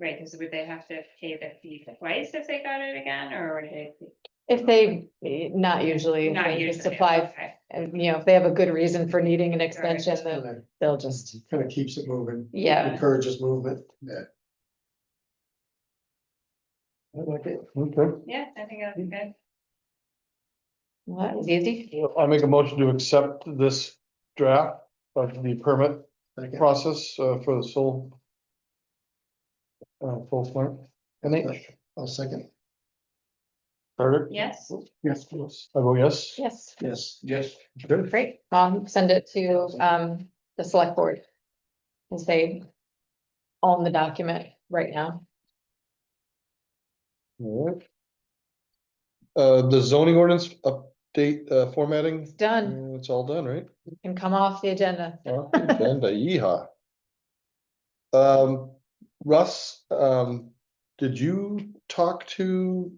Right, because would they have to pay the fee twice if they got it again, or would they? If they, eh, not usually, if not they just usually, apply, okay. and you know, if they have a good reason for needing an extension, then Kind they'll just, of keeps it moving, yeah. encourages movement. Yeah. I like it. Okay. Yeah, I think that's good. Well, that was easy. Well, I make a motion to accept this draft of the permit Second. process uh, for the soul. Uh, full farm, and they, I'll second. Carter? Yes, Yes. I vote yes. Yes, Yes. Yes. Good. great. I'll send it to um the select board. And say. Own the document right now. Alright. Uh, the zoning ordinance update uh, formatting, Done. uh, it's all done, right? Mm-hmm. Can come off the agenda. Well, Agenda, yeehaw. Um, Russ, um, did you talk to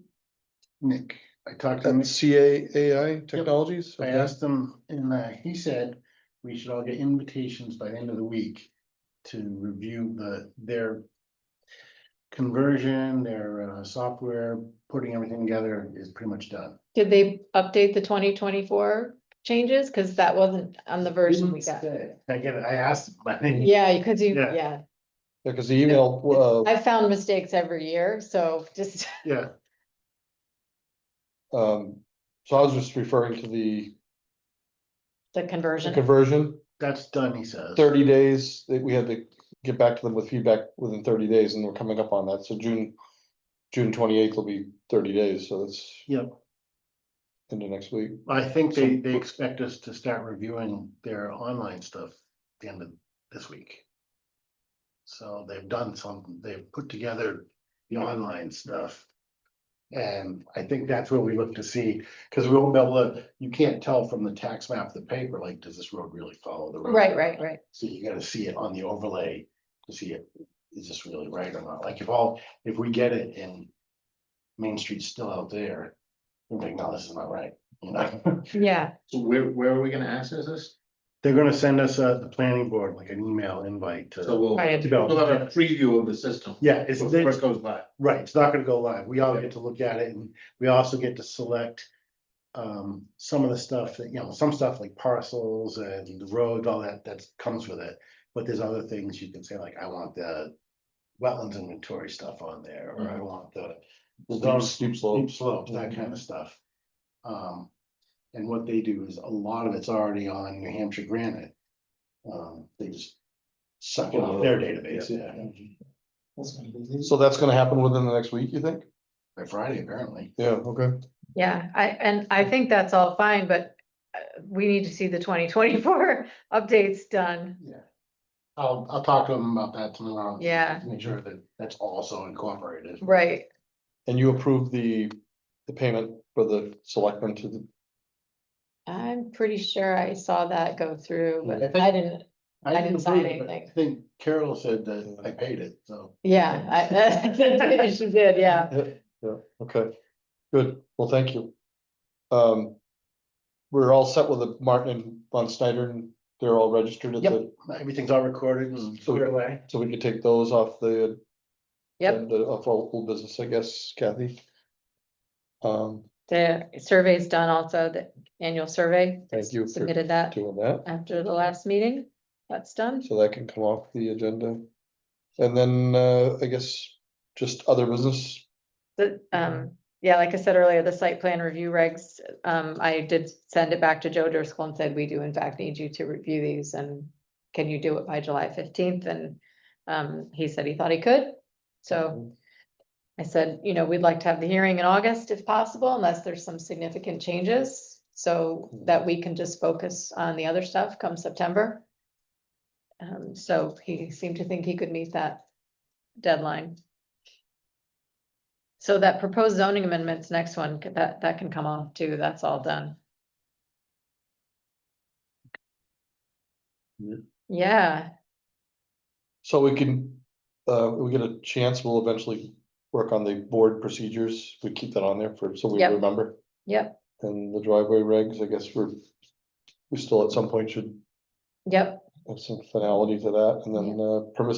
Nick, I talked to him, CAAI Technologies? I Okay. asked him, and uh, he said we should all get invitations by the end of the week to review the, their conversion, their uh, software, putting everything together is pretty much done. Did they update the twenty twenty-four changes? Cause that wasn't on the version we Didn't got. say. I get it, I asked, him, but he- Yeah, cause you, Yeah. yeah, Yeah, cause uh, the email, I've found mistakes every year, so just, yeah, uh, um, so I was just referring to the the the conversion, conversion, that's done, he says. thirty days, that we had to get back to them with feedback within thirty days, and we're coming up on that, so June. June twenty-eighth will be thirty days, so that's Yep, into next week, I think they, they expect us to start reviewing their online stuff the end of this week. So they've done some, they've put together the online stuff. And I think that's where we look to see, because we won't be able to, you can't tell from the tax map, of the paper, like, does this road really follow the road? right, right, right. So you gotta see it on the overlay to see it, is this really right or not? Like if all, if we get it and Main Street's still out there, we're like, no, this is not right, you know? Yeah, So where, where are we gonna access this? They're gonna send us uh the planning board, like an email invite So to. we'll, Right. to we'll have go. a preview of the system. Yeah, it's, Before it it's, goes live. right, it's not gonna go live. We all get to look at it and we also get to select. Um, some of the stuff that, you know, some stuff like parcels and the roads, all that, that comes with it. But there's other things you can say, like, I want the wetlands inventory stuff on there, or Mm-hmm. I want the. steep, zone steep deep slopes, slopes, that kind of stuff. Um, and what they do is a lot of it's already on New Hampshire granite. Um, they just suck it off their database, yeah, so that's gonna happen within the next week, you think? by Friday apparently. Yeah, okay, yeah, I, and I think that's all fine, but uh, we need to see the twenty twenty-four updates done. I'll, I'll talk to them about that tomorrow. Yeah. Make sure that that's also incorporated. Right, and you approved the, the payment for the selectmen to the, I'm pretty sure I saw that go through, I but think- I didn't, I didn't sign approve it, but anything. I think Carol said that I paid it, so. yeah, I, she did, yeah. yeah, okay, good, well, thank you. Um, we're all set with the Martin and Von Snyder, and they're all registered at Yep. the, Everything's all recorded and So- put away. so we could take those off the Yep, And uh, of all old business, I guess, Kathy. Um, the survey's done also, the annual survey. Thank you for Submitted that doing that, after the last meeting, that's done. so that can come off the agenda. And then, uh, I guess, just other business, The, um, yeah, like I said earlier, the site plan review regs, um, I did send it back to Joe Driscoll and said, we do in fact need you to review these and. Can you do it by July fifteenth? And, um, he said he thought he could, so. I said, you know, we'd like to have the hearing in August if possible, unless there's some significant changes. So that we can just focus on the other stuff come September. Um, so he seemed to think he could meet that deadline. So that proposed zoning amendments, next one, c- that, that can come off too, that's all done. Yeah. Yeah, so we can, uh, we get a chance, we'll eventually work on the board procedures, we keep that on there for, so we Yep. remember. yep, And the driveway regs, I guess we're, we still at some point should yep. have some finality to that, and then, uh, permissive